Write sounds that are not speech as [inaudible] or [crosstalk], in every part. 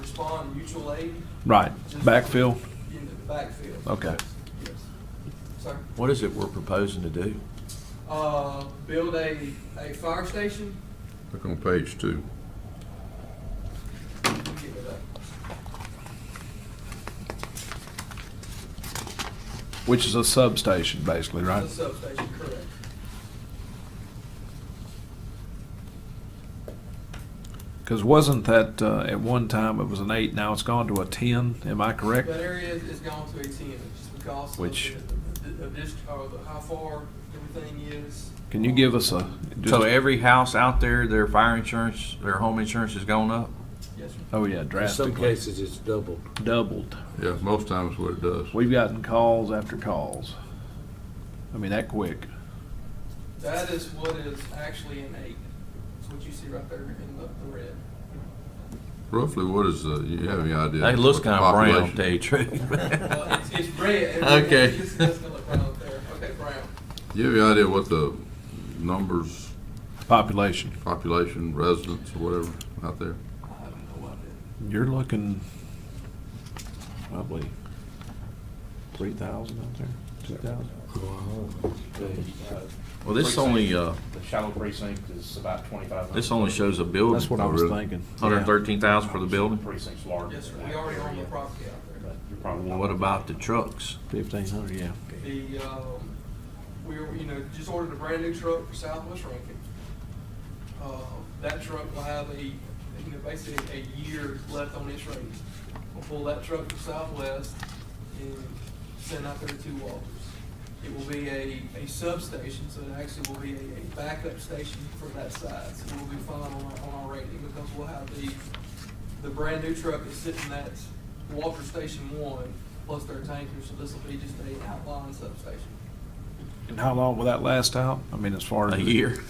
respond mutual aid Right, backfill, in the backfield. okay. Yes. Sir? What is it we're proposing to do? Uh, build a, a fire station? Look on page two. Let me get that up. Which is a substation, basically, right? The substation, correct. Because wasn't that, uh, at one time, it was an eight, now it's gone to a ten, am I correct? That area is gone to a ten, just because of Which- the- the- Of this, or the, how far everything is. Can you give us a? just- So every house out there, their fire insurance, their home insurance has gone up? Yes, sir. Oh, yeah, In some drastically, cases, it's doubled. doubled. Yeah, most times what it does. We've gotten calls after calls. I mean, that quick. That is what is actually an eight. It's what you see right there in the, the red. Roughly, what is the, you have any idea? That looks what the kind of brown, to population- tell you the [laughs] Well, truth. Uh, it's, it's [laughs] [laughs] red. It- Okay. It's, it's gonna look brown up there. Okay, brown. You have any idea what the numbers, Population. population, residents, or whatever out there? I have no idea. You're looking probably three thousand out there, two thousand. Well, this only, uh, The shallow precinct is about twenty-five hundred. this only shows a building. That's what I was really? thinking. Hundred and thirteen thousand for the building? Precinct's larger. Yes, sir. than We that already own the area, property out there. but you're probably Well, not What looking- about the trucks? Fifteen hundred, yeah. The, um, we, were- you know, just ordered a brand new truck for Southwest Rankin. Uh, that truck will have a, you know, basically a year left on its range. We'll pull that truck to Southwest and send out there to two Walters. It will be a, a substation, so it actually will be a, a backup station for that side. So we'll be fine on our, on our rating because we'll have the, the brand new truck is sitting at Walter Station One, plus their tanker, so this will be just a outline substation. And how long will that last out? I mean, as far as. A year?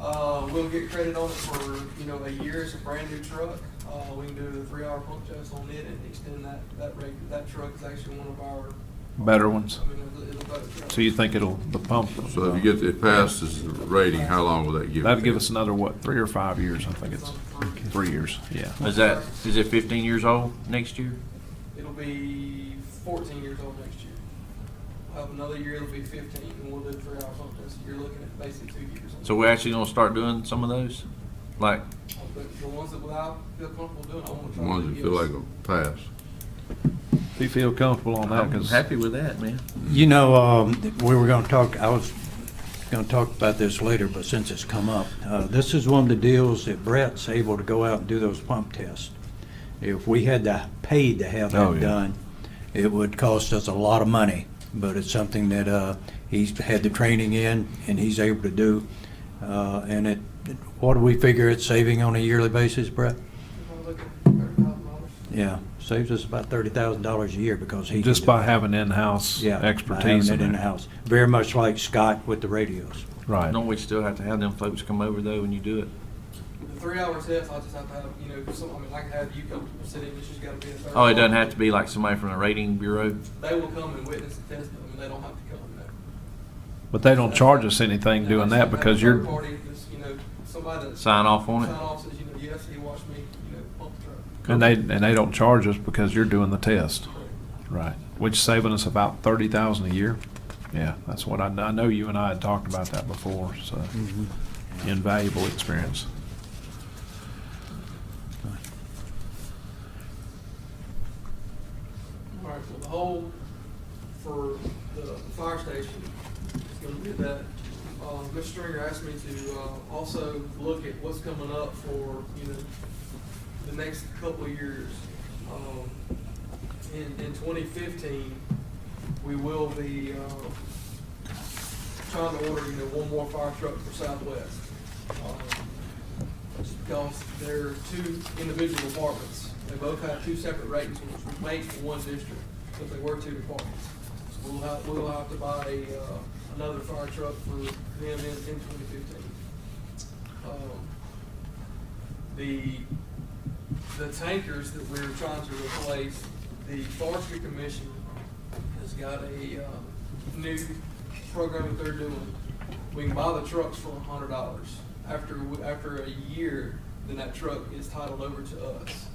Uh, we'll get credit on it for, you know, a year, it's a brand new truck, uh, we can do a three-hour pump test on it and extend that, that rate, that truck is actually one of our, Better ones. I mean, it's a- it's a better truck. So you think it'll, the pump? So if you get, it passes the rating, how long will that give? you? That'd give us another, what, three or five years? I think it's three years, yeah. Is that, is it fifteen years old next year? It'll be fourteen years old next year. We'll Have another year, it'll be fifteen, and we'll do a three-hour pump test, you're looking at basically two years. on So it. we're actually gonna start doing some of those? Like, But the ones that without feel comfortable doing, I want to The try to Ones do. that feel like a pass. Do you feel comfortable on that? I'm 'Cause happy with that, man. You know, um, we were gonna talk, I was gonna talk about this later, but since it's come up, uh, this is one of the deals that Brett's able to go out and do those pump tests. If we had to pay to have Oh, that yeah. done, it would cost us a lot of money, but it's something that, uh, he's had the training in and he's able to do. Uh, and it, what do we figure it's saving on a yearly basis, Brett? If I look at $30,000. Yeah, saves us about thirty thousand dollars a year because he. can Just do by it. having in-house Yeah, by having expertise. it in that. in-house. Very much like Scott with the radios. Right. Don't we still have to have them folks come over though when you do it? The three hour test, I just have to have, you know, some, I mean, I can have you come sit in, it's just gotta be a third. Oh, it doesn't have to be like somebody from the rating bureau? They will come and witness the test, but I mean, they don't have to come, no. But they don't charge us anything doing Now, that it's because a you're, third Party, just, you know, somebody that. Sign off on Sign it? off says, you know, yes, he watched me, you know, pump the truck. and they, and they don't charge us because you're doing the test. Right. Which is saving us about thirty thousand a year. Yeah, that's what I, I know you and I had talked about that before, so Mm-hmm. invaluable experience. All right, so the hole for the fire station is gonna be that. Uh, Mr. Stringer asked me to, uh, also look at what's coming up for, you know, the next couple of years. Um, in, in twenty fifteen, we will be, uh, trying to order, you know, one more fire truck for Southwest. Um, because they're two individual departments. They both have two separate ratings, which would make for one district, but they were two departments. So we'll have, we'll have to buy, uh, another fire truck for them in, in twenty fifteen. Um, The, the tankers that we're trying to replace, the forestry commission has got a, uh, new program that they're doing. We can buy the trucks for a hundred dollars. After, after a year, then that truck is titled over to us.